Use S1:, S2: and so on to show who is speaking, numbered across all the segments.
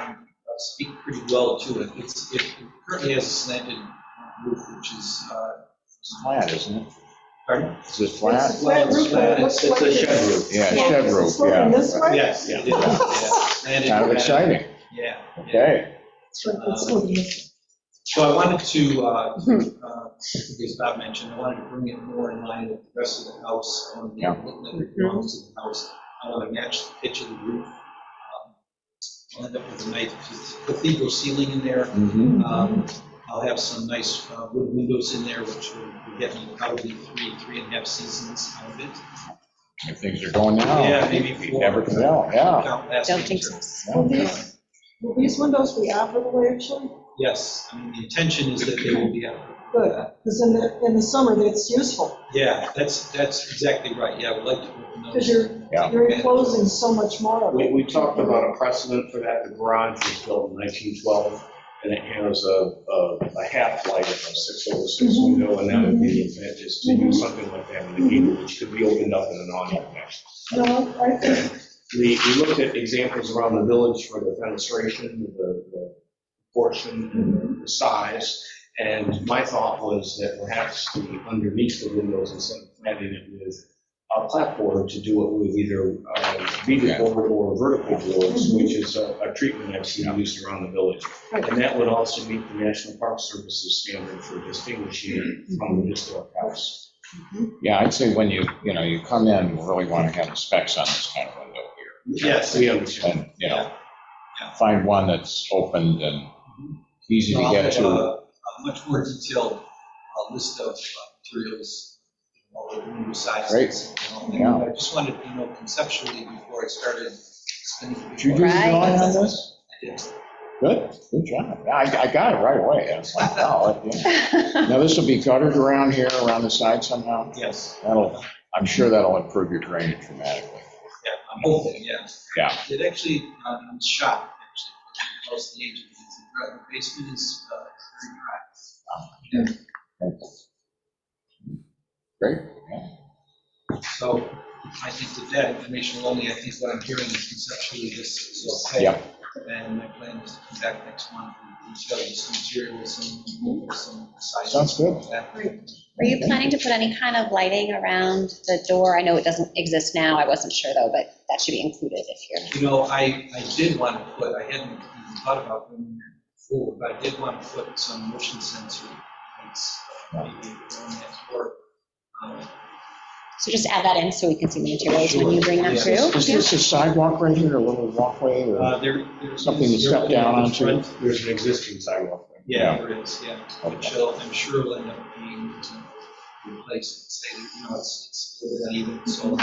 S1: uh, speak pretty well to it. It's, it currently has a slanted roof, which is, uh,
S2: It's flat, isn't it?
S1: pardon?
S2: Is it flat?
S3: It's a flat roof, but it looks
S1: It's- it's a
S3: like
S1: shed
S3: it's-
S1: roof.
S2: Yeah, shed
S3: it's
S2: roof,
S3: sloping
S2: yeah.
S3: this way?
S1: Yes, it is, yeah. Slanted,
S2: Kind of exciting,
S1: Yeah. yeah.
S2: okay.
S3: It's like it's sloping this way.
S1: So I wanted to, uh, uh, as Bob mentioned, I wanted to bring it more in line with the rest of the house and the
S2: Yeah.
S1: look that belongs to the house. I want to match the pitch of the roof. Um, I'll end up with a nice cathedral ceiling in there.
S2: Mhm.
S1: Um, I'll have some nice uh, wood windows in there, which will get me probably three, three and a half seasons out of it.
S2: If things are going now.
S1: Yeah, maybe
S2: Oh, You
S1: four.
S2: never can tell, yeah.
S1: Count last
S4: Don't think
S1: winter.
S4: so.
S3: Will
S2: yeah.
S3: these, will these windows be operable actually?
S1: Yes, I mean, the intention is that they will be out.
S3: Good, because in the, in the summer, that's useful,
S1: Yeah, that's, that's exactly right, yeah, I would like to open those.
S3: because you're,
S2: Yeah.
S3: you're enclosing so much more of
S5: We,
S3: it.
S5: we talked about a precedent for that, the garage was built in 1912, and it has a, a a half-light of a 606 window, and that would be the advantage, is to use something like that in the heater, which could be opened up in an awning fashion.
S3: No, I think,
S5: We, we looked at examples around the village for the fenestration, the, the portion, and the size, and my thought was that perhaps the, underneath the windows, instead of planting it with a clapboard, to do it with either uh, beaded board or vertical boards, which is a, a treatment I've seen used around the village. And that would also meet the National Park Service's standard for distinguishing it from the historic house.
S2: Yeah, I'd say when you, you know, you come in, you really want to have the specs on this kind of window here.
S1: Yes.
S5: We understand.
S2: And, you know,
S1: Yeah.
S2: find one that's opened and easy to
S1: I'll
S2: get
S1: have a-
S2: to.
S1: A much more detailed uh, list of uh, materials, all the window sizes. and all that.
S2: Yeah.
S1: But I just wanted, you know, conceptually, before I started spending.
S2: Did you do the
S4: Right.
S2: drawing on this?
S1: Yes.
S2: Good, good job. Yeah, I, I got it right away. I was like, wow. yeah. Now, this will be gutted around here, around the side somehow.
S1: Yes,
S2: That'll, I'm sure that'll improve your drainage dramatically.
S1: yeah, I'm hoping, yeah.
S2: Oh. Yeah.
S1: It actually, uh, I'm shocked, actually, most of the agents, the basement is uh, very dry.
S2: Great, yeah.
S1: So I think with that information only, I think what I'm hearing is conceptually this is okay.
S2: Yeah.
S1: And my plan is to come back next month and show you some materials and some sizes.
S2: Sounds good.
S4: Were you planning to put any kind of lighting around the door? I know it doesn't exist now, I wasn't sure though, but that should be included if you're,
S1: You know, I, I did want to put, I hadn't even thought about doing that before, but I did want to put some motion sensor lights, uh, maybe on that door. Um,
S4: so just add that in so we can see the materials when you bring them
S1: Sure, yeah.
S4: through.
S2: Is this a sidewalk right here, a little walkway or?
S1: uh, There, there's.
S2: Something to step down onto.
S5: There's an existing sidewalk. there.
S1: Yeah, there is, yeah.
S2: Okay.
S1: Which will, I'm sure will end up being uh, replaced, say, you know, it's, it's even, so.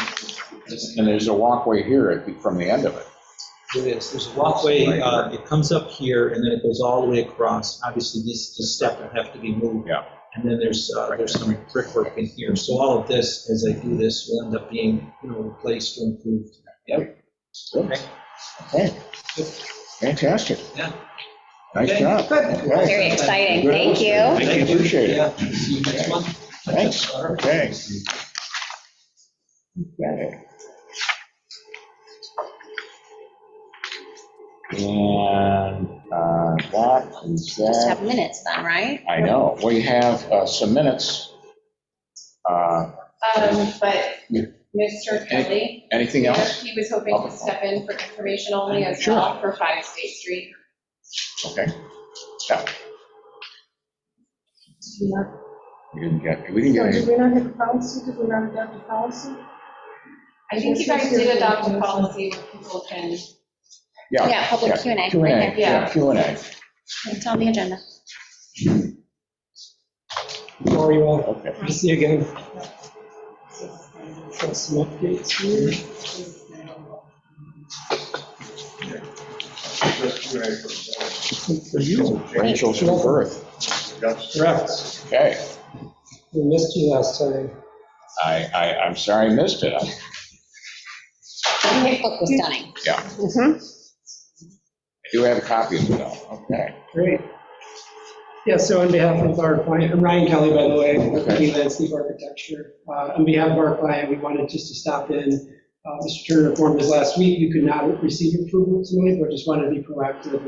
S2: And there's a walkway here at- from the end of it.
S6: There is, there's a walkway, uh, it comes up here, and then it goes all the way across. Obviously, this, this step will have to be moved.
S2: Yeah.
S6: And then there's, uh, there's some brickwork in here, so all of this, as I do this, will end up being, you know, replaced or improved.
S2: Okay, fantastic.
S1: Yeah.
S2: Nice
S1: Okay.
S2: job. Okay.
S4: Very exciting, thank you.
S2: I appreciate it.
S1: Yeah, see you next month.
S2: Thanks.
S1: All right.
S2: Okay. Okay. And uh, that is
S4: Just
S2: that.
S4: have minutes then, right?
S2: I know, we have uh, some minutes. Uh,
S7: Um, but
S2: Yeah.
S7: Mr. Kelly,
S2: Anything else?
S7: he was hoping to step in for information only as
S2: Sure.
S7: well for Five State Street.
S2: Okay. Yeah, we didn't get, we didn't
S3: So
S2: get
S3: did
S2: any.
S3: we not have a policy, did we not adopt a policy?
S7: I think you guys did adopt a policy where people can,
S2: Yeah,
S4: Yeah, public
S2: yeah.
S4: Q and A,
S2: Q and
S4: right
S2: A, yeah, Q and A.
S4: there, it's on the agenda.
S6: How are you all?
S2: Okay,
S6: Good to see you again. Got some updates here. For you,
S2: Rachel's birth,
S6: correct.
S2: okay.
S6: We missed you last time.
S2: I, I, I'm sorry I missed it.
S4: The book was stunning.
S2: I do have a copy of it though, okay.
S8: Great. Yeah, so on behalf of our client, I'm Ryan Kelly, by the way, with Lee Landscape Architecture. Uh, On behalf of our client, we wanted just to stop in. Uh, Mr. Turner informed us last week, you could not receive approval tonight, but just wanted to be proactive